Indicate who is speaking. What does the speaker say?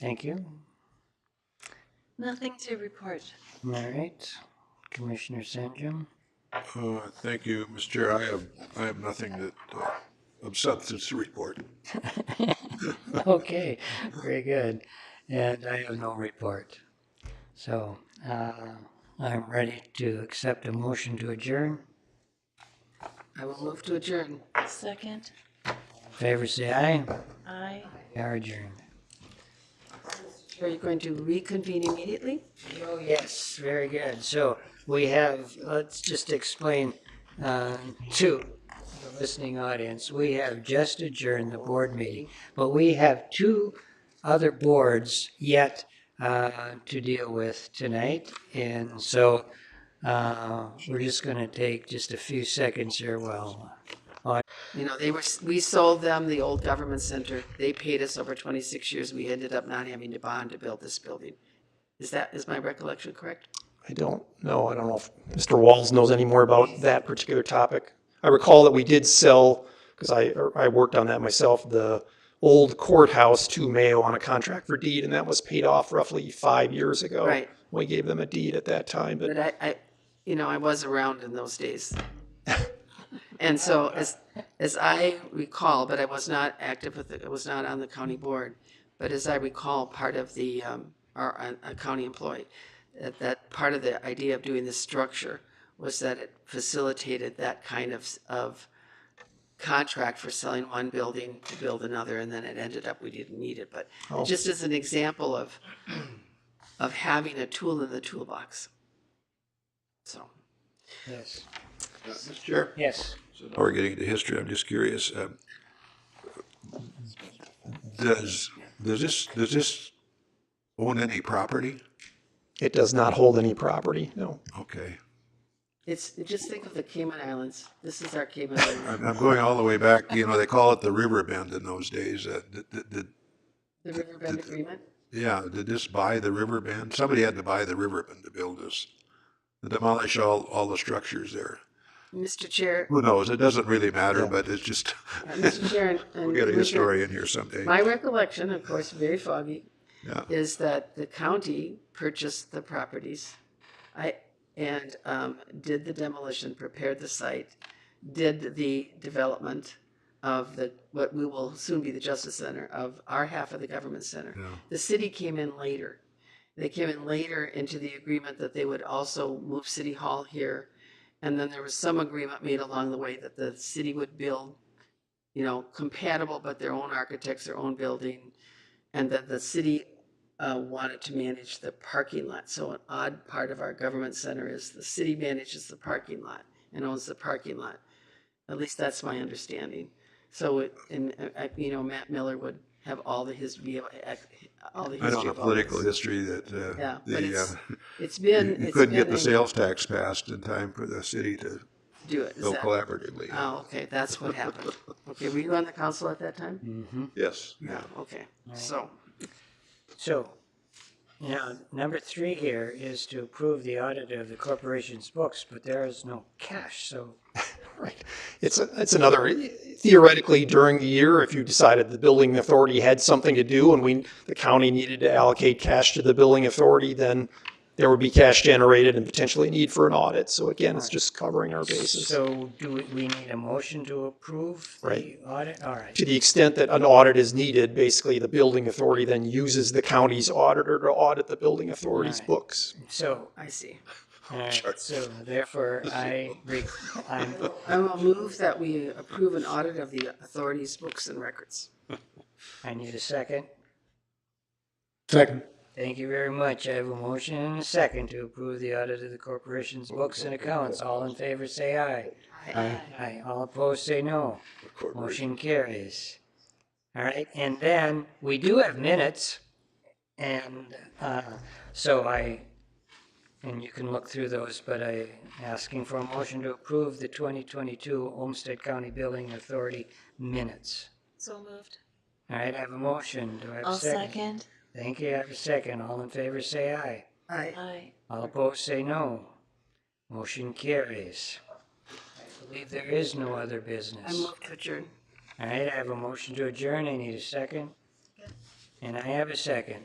Speaker 1: Thank you.
Speaker 2: Nothing to report.
Speaker 1: All right. Commissioner Sandrum?
Speaker 3: Uh, Thank you, Mr. Chair. I have, I have nothing that, uh, of substance to report.
Speaker 1: Okay, very good. And I have no report. So, uh, I'm ready to accept a motion to adjourn. I will move to adjourn.
Speaker 2: Second,
Speaker 1: Favor say aye.
Speaker 2: I.
Speaker 1: We are adjourned.
Speaker 4: Are you going to reconvene immediately?
Speaker 1: Oh, yes, very good. So we have, let's just explain uh, to the listening audience, we have just adjourned the board meeting, but we have two other boards yet uh, to deal with tonight. And so uh, we're just going to take just a few seconds here while
Speaker 4: You know, they were, we sold them the old government center. They paid us over twenty-six years. We ended up not having to bond to build this building. Is that, is my recollection correct?
Speaker 5: I don't know. I don't know if Mr. Walls knows any more about that particular topic. I recall that we did sell, because I, or I worked on that myself, the old courthouse to Mayo on a contract for deed, and that was paid off roughly five years ago.
Speaker 4: Right.
Speaker 5: We gave them a deed at that time,
Speaker 4: But
Speaker 5: but
Speaker 4: I, I, you know, I was around in those days. And so as, as I recall, but I was not active with, the- I was not on the county board. But as I recall, part of the, um, or a, a county employee, that, that part of the idea of doing this structure was that it facilitated that kind of, s- of contract for selling one building to build another, and then it ended up, we didn't need it, but just as an example of, of having a tool in the toolbox. So,
Speaker 1: Yes.
Speaker 3: Uh, Mr. Chair?
Speaker 1: Yes.
Speaker 3: So now we're getting into history. I'm just curious. um, Does, does this, does this own any property?
Speaker 5: it does not hold any property, no.
Speaker 3: Okay.
Speaker 4: it's, just think of the Cayman Islands, this is our Cayman Islands,
Speaker 3: I'm, I'm going all the way back, you know, they call it the river bend in those days. Uh, did- did- did-
Speaker 4: the Riverbend Agreement.
Speaker 3: Yeah, did this buy the river bend? Somebody had to buy the river bend to build this. to Demolish all, all the structures there.
Speaker 4: Mr. Chair,
Speaker 3: Who knows? It doesn't really matter, but it's just,
Speaker 4: Mr. Chair and- and.
Speaker 3: we'll get a
Speaker 4: Commissioner-
Speaker 3: historian here someday.
Speaker 4: My recollection, of course, very foggy,
Speaker 3: Yeah.
Speaker 4: is that the county purchased the properties. I, and, um, did the demolition, prepared the site, did the development of the, what we will soon be the Justice Center, of our half of the government center.
Speaker 3: Yeah.
Speaker 4: The city came in later. They came in later into the agreement that they would also move City Hall here. And then there was some agreement made along the way that the city would build, you know, compatible, but their own architects, their own building. And that the city uh, wanted to manage the parking lot. So an odd part of our government center is the city manages the parking lot and owns the parking lot. At least that's my understanding. So, it- and, uh, uh, you know, Matt Miller would have all the his, be able- all the history.
Speaker 3: I don't know
Speaker 4: of all this.
Speaker 3: political history that, uh,
Speaker 4: Yeah, but
Speaker 3: the,
Speaker 4: it's-
Speaker 3: uh,
Speaker 4: It's been.
Speaker 3: You
Speaker 4: it's
Speaker 3: couldn't get
Speaker 4: been
Speaker 3: the
Speaker 4: a-
Speaker 3: sales tax passed in time for the city to
Speaker 4: Do it. Is
Speaker 3: go
Speaker 4: that-
Speaker 3: collaboratively.
Speaker 4: Oh, okay, that's what happened. Okay, were you on the council at that time?
Speaker 1: Mm-hmm.
Speaker 3: Yes.
Speaker 4: Yeah. Okay, so,
Speaker 1: So, now, number three here is to approve the audit of the corporation's books, but there is no cash, so
Speaker 5: Right. It's, a- it's another, theoretically, during the year, if you decided the building authority had something to do and we, the county needed to allocate cash to the building authority, then there would be cash generated and potentially need for an audit. So again, it's just covering our bases.
Speaker 1: So do we, we need a motion to approve the
Speaker 5: Right.
Speaker 1: audit? All right,
Speaker 5: To the extent that an audit is needed, basically, the building authority then uses the county's auditor to audit the building authority's
Speaker 1: Right.
Speaker 5: books.
Speaker 1: so,
Speaker 4: I see.
Speaker 1: all right, so therefore I, re- I'm,
Speaker 4: I will move that we approve an audit of the authority's books and records.
Speaker 1: I need a second.
Speaker 3: Second.
Speaker 1: Thank you very much. I have a motion and a second to approve the audit of the corporation's books and accounts. All in favor, say aye. Aye. All opposed, say no. Motion carries. All right, and then we do have minutes. And uh, so I, and you can look through those, but I asking for a motion to approve the 2022 Olmsted County Building Authority minutes.
Speaker 2: So moved.
Speaker 1: All right, I have a motion. Do I have
Speaker 2: I'll
Speaker 1: a second?
Speaker 2: second,
Speaker 1: Thank you. I have a second. All in favor, say aye.
Speaker 4: Aye.
Speaker 2: I.
Speaker 1: All opposed, say no. Motion carries. I believe there is no other
Speaker 4: I
Speaker 1: business.
Speaker 4: move to adjourn.
Speaker 1: All right, I have a motion to adjourn. I need a second. And I have a second.